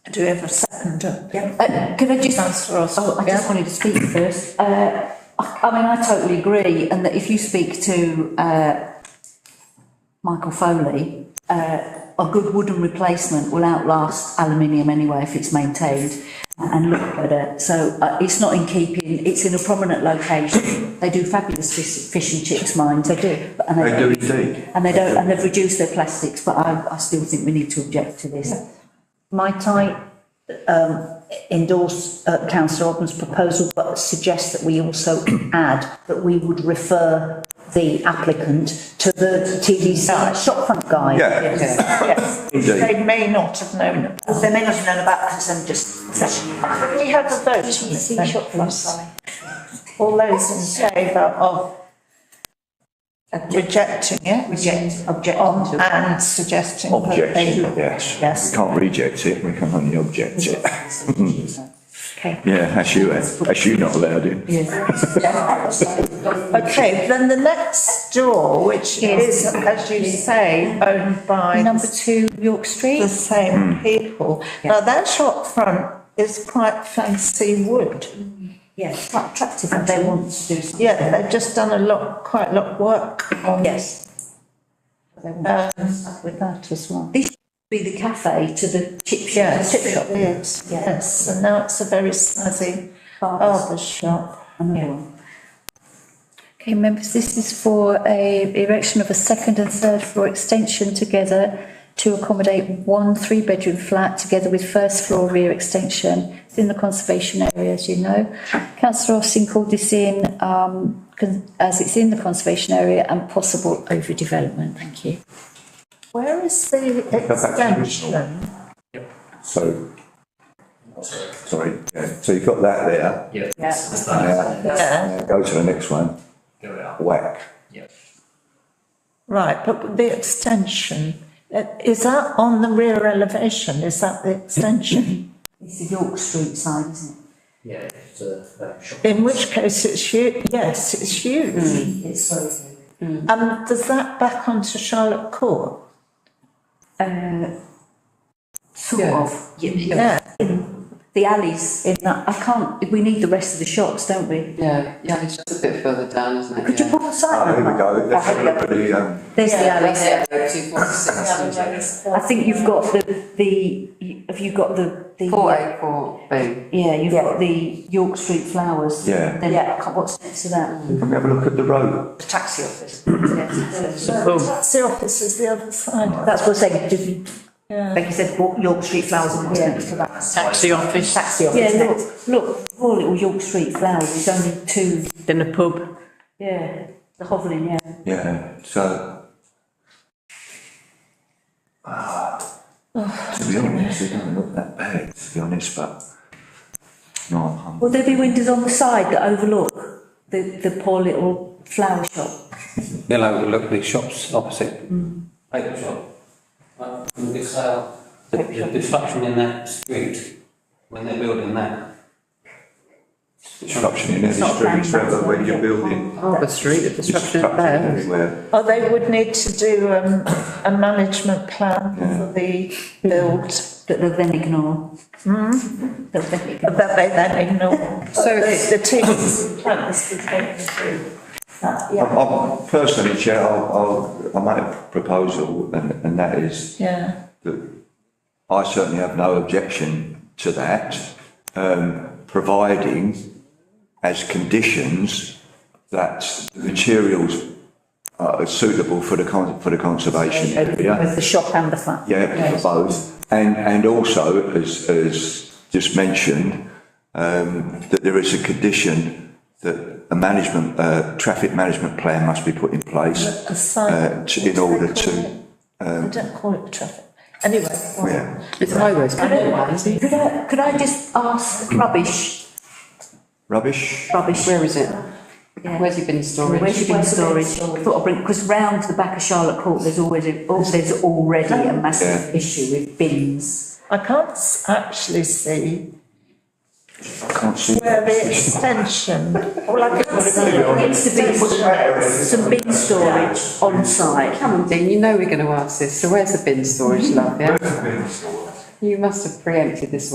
Do we have a seconder? Yeah. Uh, Can I just? Councillor Austin. Oh, I just wanted to speak first. Uh, I I mean, I totally agree, and that if you speak to, uh, Michael Foley, uh, a good wooden replacement will outlast aluminium anyway if it's maintained and look better. So, uh, it's not in keeping, it's in a prominent location. They do fabulous fish, fish and chips mines. They do. And They do they, indeed. and they don't, and they've reduced their plastics, but I, I still think we need to object to this. Might I um, endorse uh, councillor Orban's proposal, but suggest that we also add that we would refer the applicant to the TDC shopfront guide? Yeah, Yes, indeed. they may not have known about. Because they may not have known about that, and just. We had a vote. wasn't it? All those in favour of rejecting it? Reject, object. And suggesting that they. Objection, yes. Yes. We can't reject it, we can only object it. Okay. Yeah, as you, as you not allowed in. Okay, then the next door, which is, as you say, owned by Number two, York Street? the same Hmm. people. Now, that shop front is quite fancy wood. Yes, quite attractive. And they want to do something. Yeah, they've just done a lot, quite a lot of work on. Yes. They want to start with that as well. This should be the cafe to the chip shop. Yes, chip shop. it is, yes, and now it's a very snazzy barber shop. Okay, members, this is for a erection of a second and third floor extension together to accommodate one three-bedroom flat together with first floor rear extension. It's in the conservation area, as you know. Councillor Austin called this in, um, con- as it's in the conservation area and possible overdevelopment. Thank you. Where is the that's the original. extension? So, sorry, yeah, so you've got that there. Yeah. Yeah. Yeah, Now Go to the next one, Here we are. whack. Yeah. right, but the extension, uh, is that on the rear elevation, is that the extension? It's the York Street side, isn't Yeah, it's a uh, shop. In which case it's huge, yes, it's huge. it? It's so. And does that back onto Charlotte Court? Uh, sort of. Y- y- Yeah, The alleys. in that, I can't, we need the rest of the shops, don't we? Yeah, yeah, it's just a bit further down, isn't it? Could you Yeah. put a Oh, sign here we up? go, let's have a look at the, um, There's the alleys. Yeah, two forty-six. I think you've got the, the, have you got the? the- Four eight four B. Yeah, you've got the York Street flowers. Yeah. Then I can't- what's next to that? can we have a look at the road? The taxi office. that's the office is the other side, That's what I'm saying, if you- yeah. like you said, Wa- York Street flowers and what's next to that? Taxi office. Taxi Yeah, look, look, poor little York Street flowers, it's only two, Then a pub. yeah, the hovelling, yeah. Yeah, so. Ah, To be honest, it doesn't look that bad, to be honest, but. No, I'm- Will there be windows on the side that overlook the, the poor little flower shop? They'll overlook the shops opposite. Paper shop. Uh, from the sale, the, the disruption in that street, when they're building that. Disruption in any street, Trevor, when you're building. Oh, the street, the disruption Disruption everywhere. Oh, they would need to do um, a management plan for the build That they'll then ignore. Hmm? They'll then ignore. that they then ignore. So the team plans I'm, I'm personally, Chair, I'll, I'll, I make a proposal and, and that is Yeah, that I certainly have no objection to that, um, providing as conditions that the materials are suitable for the con, for the conservation uh, area. Both the shop and the flat. Yeah, for both. And, and also, as, as just mentioned, um, that there is a condition that a management, uh, traffic management plan must be put in place, a sign, uh, to- in order to, I don't call it traffic. Anyway, yeah. It's highways, but Could I, could I just ask rubbish, Rubbish? rubbish? where is it? Yeah. Where's your bin storage? Where's your bin storage? Thought I'd bring, because round the back of Charlotte Court, there's always, a- oh, there's already a massive issue with bins. I can't s- actually see I can't see. where the extension, well, I can see Needs to be some bin storage on site. Come on, Dean, you know we're going to ask this, so where's the bin storage, love, yeah? You must have preempted this